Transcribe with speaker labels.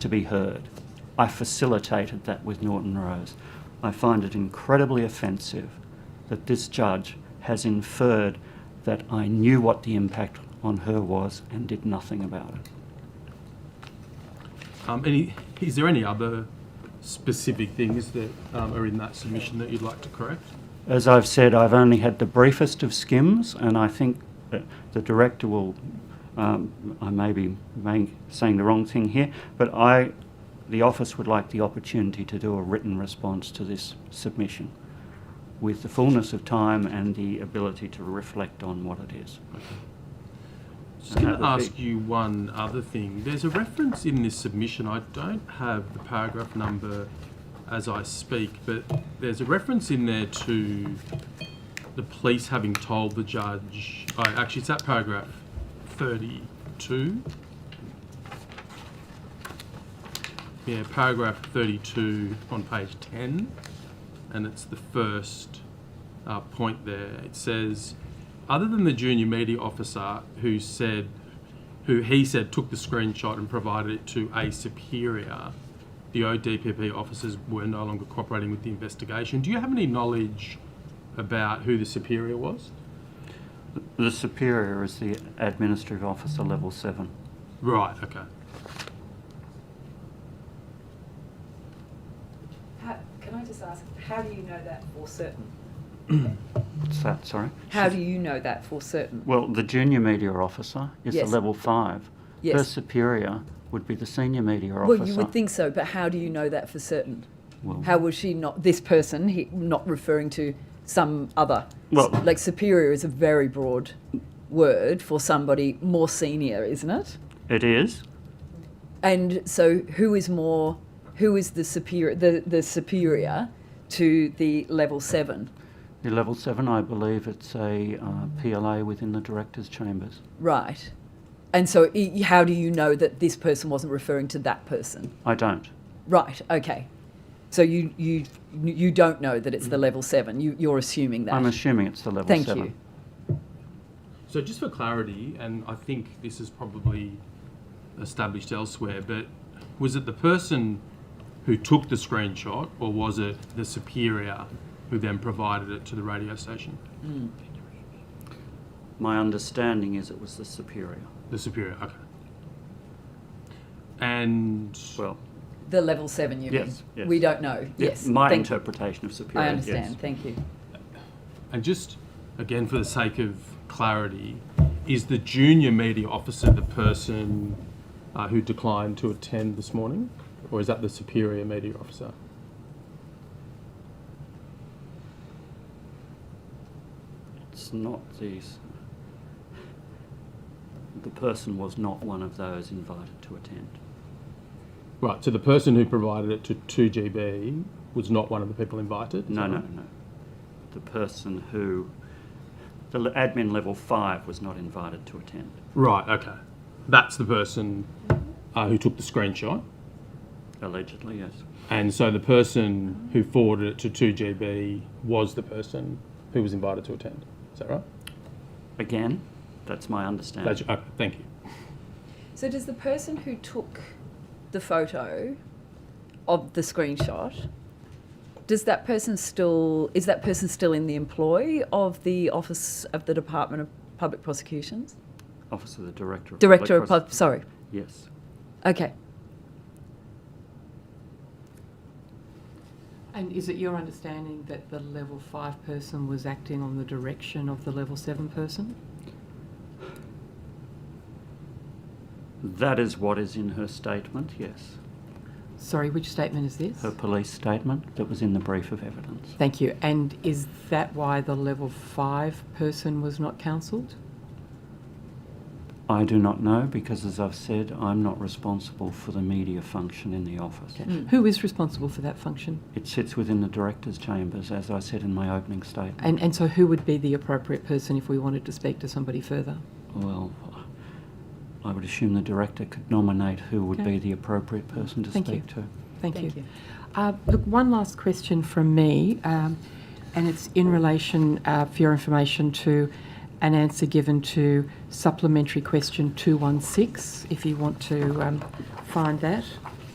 Speaker 1: to be heard. I facilitated that with Norton Rose. I find it incredibly offensive that this judge has inferred that I knew what the impact on her was and did nothing about it.
Speaker 2: Um, any, is there any other specific things that um, are in that submission that you'd like to correct?
Speaker 1: As I've said, I've only had the briefest of skims, and I think that the director will. Um, I may be may, saying the wrong thing here, but I, the office would like the opportunity to do a written response to this submission, with the fullness of time and the ability to reflect on what it is.
Speaker 2: Just going
Speaker 1: that
Speaker 2: to
Speaker 1: would be-
Speaker 2: ask you one other thing. There's a reference in this submission. I don't have the paragraph number as I speak, but there's a reference in there to the police having told the judge. Oh, actually, it's that paragraph 32. Yeah, paragraph 32 on page 10, and it's the first uh, point there. It says, other than the junior media officer who said, who he said took the screenshot and provided it to a superior, the ODPP officers were no longer cooperating with the investigation. Do you have any knowledge about who the superior was?
Speaker 1: The superior is the administrative officer level seven.
Speaker 2: Right, okay.
Speaker 3: How, can I just ask, how do you know that for certain?
Speaker 1: What's that? Sorry.
Speaker 3: How do you know that for certain?
Speaker 1: Well, the junior media officer is
Speaker 3: Yes.
Speaker 1: the level five. Her
Speaker 3: Yes.
Speaker 1: superior would be the senior media officer.
Speaker 3: Well, you would think so, but how do you know that for certain?
Speaker 1: Well-
Speaker 3: How was she not this person? He, not referring to some other.
Speaker 1: Well-
Speaker 3: like superior is a very broad word for somebody more senior, isn't it?
Speaker 1: It is.
Speaker 3: And so, who is more? Who is the superior? The, the superior to the level seven,
Speaker 1: The level seven, I believe it's a uh, PLA within the director's chambers.
Speaker 3: right? And so, i- how do you know that this person wasn't referring to that person?
Speaker 1: I don't.
Speaker 3: Right. Okay. So you you you don't know that it's the level seven. You you're assuming that.
Speaker 1: Mm. I'm assuming it's the level
Speaker 3: Thank
Speaker 1: seven.
Speaker 3: you.
Speaker 2: So just for clarity, and I think this is probably established elsewhere, but was it the person who took the screenshot or was it the superior who then provided it to the radio station?
Speaker 1: My understanding is it was the superior.
Speaker 2: The superior, okay. And
Speaker 1: Well,
Speaker 3: The level seven. You
Speaker 1: Yes,
Speaker 3: mean?
Speaker 1: yes.
Speaker 3: We don't know.
Speaker 1: yeah,
Speaker 3: yes.
Speaker 1: my
Speaker 3: Thank-
Speaker 1: interpretation of superior.
Speaker 3: I
Speaker 1: yes.
Speaker 3: understand. Thank you.
Speaker 2: and just again for the sake of clarity, is the junior media officer the person uh, who declined to attend this morning, or is that the superior media officer?
Speaker 1: It's not these. The person was not one of those invited to attend.
Speaker 2: Right, so the person who provided it to 2GB was not one of the people invited? is
Speaker 1: No,
Speaker 2: that
Speaker 1: no,
Speaker 2: right?
Speaker 1: no. The person who, the le- admin level five was not invited to attend.
Speaker 2: Right, okay. That's the person uh, who took the screenshot.
Speaker 1: Allegedly, yes.
Speaker 2: And so the person who forwarded it to 2GB was the person who was invited to attend. Is that right?
Speaker 1: Again, that's my understanding.
Speaker 2: That's, okay, thank you.
Speaker 3: So does the person who took the photo of the screenshot? Does that person still is that person still in the employ of the office of the Department of Public Prosecutions?
Speaker 1: Office of the Director of
Speaker 3: Director of
Speaker 1: Public
Speaker 3: Pub. Sorry.
Speaker 1: Pros- Yes.
Speaker 3: Okay.
Speaker 4: And is it your understanding that the level five person was acting on the direction of the level seven person?
Speaker 1: That is what is in her statement, yes.
Speaker 4: Sorry, which statement is this?
Speaker 1: Her police statement that was in the brief of evidence.
Speaker 4: Thank you. And is that why the level five person was not counselled?
Speaker 1: I do not know because, as I've said, I'm not responsible for the media function in the office.
Speaker 4: Okay. Who is responsible for that function?
Speaker 1: It sits within the director's chambers, as I said in my opening statement.
Speaker 4: And, and so who would be the appropriate person if we wanted to speak to somebody further?
Speaker 1: Well, I would assume the director could nominate who would
Speaker 4: Okay.
Speaker 1: be the appropriate person to
Speaker 4: Thank you.
Speaker 1: speak to.
Speaker 4: Thank,
Speaker 3: Thank
Speaker 4: you.
Speaker 3: you.
Speaker 4: Uh, look, one last question from me, um, and it's in relation, uh, for your information, to an answer given to supplementary question 216, if you want to um, find that.